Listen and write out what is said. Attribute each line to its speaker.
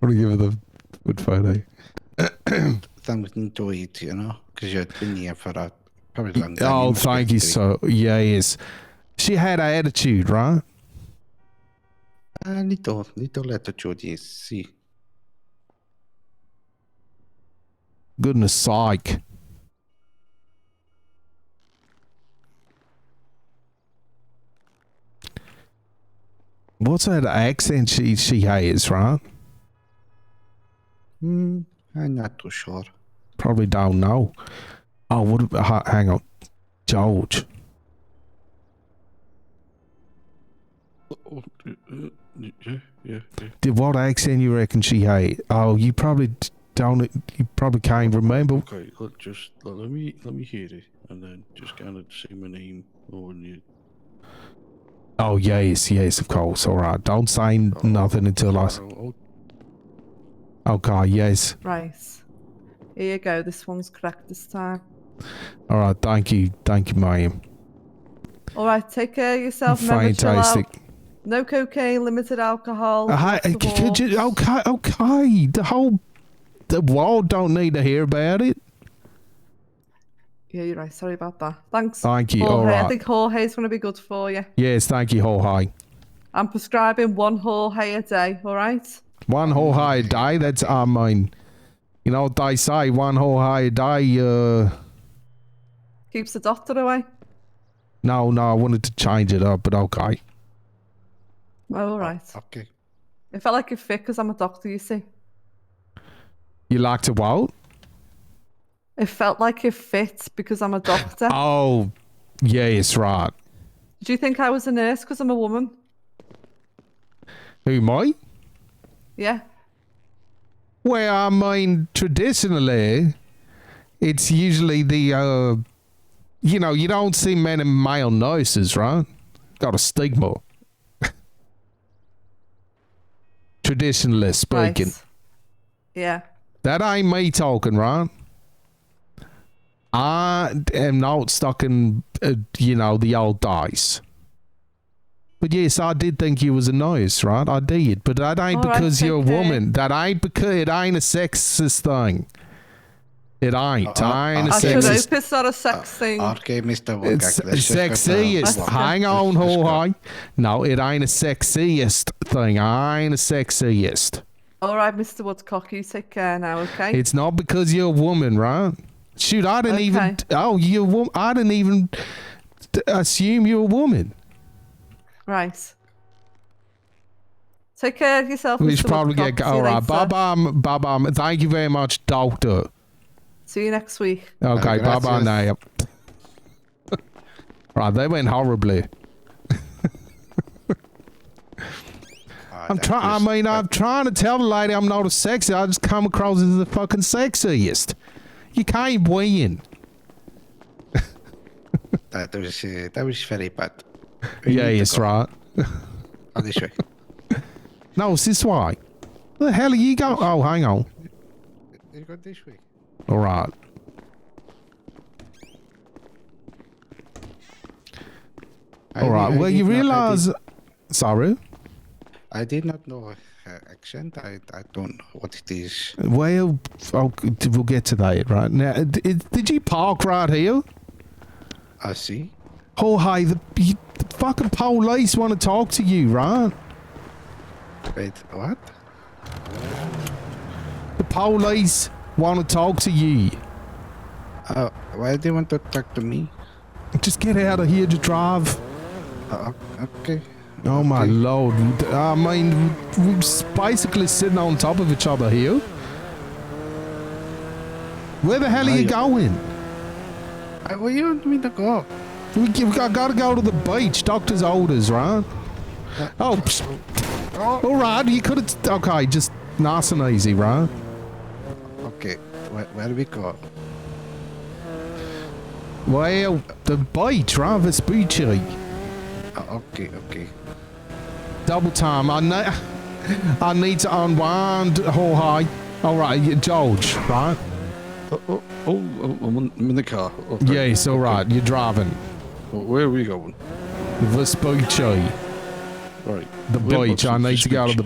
Speaker 1: want to give her the good photo.
Speaker 2: Then we can go eat, you know, because you've been here for a probably long time.
Speaker 1: Oh,
Speaker 2: must be
Speaker 1: thank you
Speaker 2: hungry.
Speaker 1: so. Yes, she had an attitude, right?
Speaker 2: A little, little attitude, yes. See,
Speaker 1: Goodness sake! What's that accent she she has, right?
Speaker 2: hmm, I'm not too sure.
Speaker 1: Probably don't know. Oh, what? ab- ha- Hang on, George.
Speaker 2: Oh, yeah, yeah, yeah.
Speaker 1: Did what accent you reckon she had? Oh, you probably d- don't. You probably can't remember.
Speaker 3: Okay, look, just let, let me let me hear it, and then just kind of say my name or when you.
Speaker 1: Oh yes, yes, of course. All right. Don't say n- nothing until I. s-
Speaker 3: I'll,
Speaker 1: Okay. Yes.
Speaker 4: Right. Here you go. This one's correct this time.
Speaker 1: All right. Thank you. Thank you, ma'am.
Speaker 4: All right. Take care of yourself. Remember, chill out.
Speaker 1: Fantastic.
Speaker 4: No cocaine, limited alcohol.
Speaker 1: Uh, hi,
Speaker 4: lots Oh, of
Speaker 1: c- could
Speaker 4: walks.
Speaker 1: you? Okay. Okay. The whole the world don't need to hear about it.
Speaker 4: Yeah, you're right. Sorry about that. Thanks.
Speaker 1: Thank you.
Speaker 4: Jorge.
Speaker 1: All
Speaker 4: I
Speaker 1: right.
Speaker 4: think Jorge's going to be good for you.
Speaker 1: Yes. Thank you, Jorge.
Speaker 4: I'm prescribing one Jorge a day. All right.
Speaker 1: One whole high day. That's I mean, you know what they say. One whole high day. Uh,
Speaker 4: Keeps the doctor away.
Speaker 1: no, no. I wanted to change it up, but okay.
Speaker 4: Oh, all right.
Speaker 2: Okay.
Speaker 4: It felt like a fit because I'm a doctor, you see.
Speaker 1: You like to what?
Speaker 4: It felt like a fit because I'm a doctor.
Speaker 1: Oh, yes, right.
Speaker 4: Do you think I was a nurse because I'm a woman?
Speaker 1: Who me?
Speaker 4: Yeah.
Speaker 1: Well, I mean, traditionally, it's usually the, uh, you know, you don't see many male nurses, right? Got a stigma. traditionally speaking.
Speaker 4: Right. Yeah.
Speaker 1: That ain't me talking, right? I am not stuck in, uh, you know, the old days. But yes, I did think you was a nurse, right? Oh, I did, but that ain't
Speaker 4: All right,
Speaker 1: because you're a
Speaker 4: okay.
Speaker 1: woman. That ain't because it ain't a sexist thing. It ain't.
Speaker 2: Uh,
Speaker 1: I ain't a
Speaker 2: uh,
Speaker 4: I should
Speaker 1: sexist.
Speaker 4: hope it's not a
Speaker 1: uh,
Speaker 4: sex thing.
Speaker 2: Okay, Mr. Woodcock.
Speaker 1: It's
Speaker 2: let's just go down.
Speaker 4: Let's
Speaker 1: sexiest.
Speaker 4: go.
Speaker 2: Walk.
Speaker 1: Hang
Speaker 2: Let's-
Speaker 1: on,
Speaker 2: let's go.
Speaker 1: Jorge. No, it ain't a sexiest thing. I ain't a sexiest.
Speaker 4: All right, Mr. Woodcock, you take care now, okay?
Speaker 1: It's not because you're a woman, right? Shoot, I didn't even.
Speaker 4: Okay.
Speaker 1: Oh, you're a woman. I didn't even t- assume you're a woman.
Speaker 4: Right. Take care of yourself.
Speaker 1: We
Speaker 4: Mr.
Speaker 1: should probably
Speaker 4: Woodcock.
Speaker 1: get.
Speaker 4: See you
Speaker 1: All right.
Speaker 4: later.
Speaker 1: Bye bye. Bye bye. Thank you very much, doctor.
Speaker 4: See you next week.
Speaker 1: Okay. Bye bye
Speaker 2: gracias.
Speaker 1: now. right. They went horribly.
Speaker 2: Ah,
Speaker 1: I'm
Speaker 2: that
Speaker 1: trying.
Speaker 2: was-
Speaker 1: I mean, I'm trying to tell the lady I'm not a sexy. I just come across as the fucking sexiest. You can't win.
Speaker 2: that was uh, that was very bad. We
Speaker 1: Yeah,
Speaker 2: need to
Speaker 1: yes,
Speaker 2: go.
Speaker 1: right.
Speaker 2: Oh, this way.
Speaker 1: No, it's this way. The hell are you going? Oh, hang on.
Speaker 2: You go this way.
Speaker 1: All right.
Speaker 2: I
Speaker 1: All
Speaker 2: di-
Speaker 1: right.
Speaker 2: I
Speaker 1: Well, you
Speaker 2: did not- I did-
Speaker 1: realize. Sorry.
Speaker 2: I did not know her accent. I, I don't know what it is.
Speaker 1: Well, oh, we'll get to that right now. It- it- Did you park right here?
Speaker 2: I see.
Speaker 1: Jorge, the, you, the fucking police want to talk to you, right?
Speaker 2: Wait, what?
Speaker 1: The police want to talk to you.
Speaker 2: Uh, why do you want to talk to me?
Speaker 1: Just get out of here to drive.
Speaker 2: Uh, o- okay.
Speaker 1: Oh my
Speaker 2: Okay.
Speaker 1: lord! I mean, we're s- basically sitting on top of each other here. Where the hell are you
Speaker 2: Right.
Speaker 1: going?
Speaker 2: Uh, where you want me to go?
Speaker 1: We, g- we got, to go to the beach. Doctor's orders, right? Oh, psh. all right. You could have. Okay, just nice and easy, right?
Speaker 2: Okay. Where, where do we go?
Speaker 1: Well, the beach, right? Vespucci.
Speaker 2: Uh, okay, okay.
Speaker 1: Double time. I need. I need to unwind. Jorge. All right, you- George. Right?
Speaker 3: oh, oh, oh, oh, I'm, on, I'm in the car. Okay.
Speaker 1: Yes. All right. You're driving.
Speaker 3: Oh, Where are we going?
Speaker 1: Vespucci.
Speaker 3: Right.
Speaker 1: The
Speaker 3: We're
Speaker 1: beach. I
Speaker 3: watching
Speaker 1: need to go to
Speaker 3: speech.
Speaker 1: the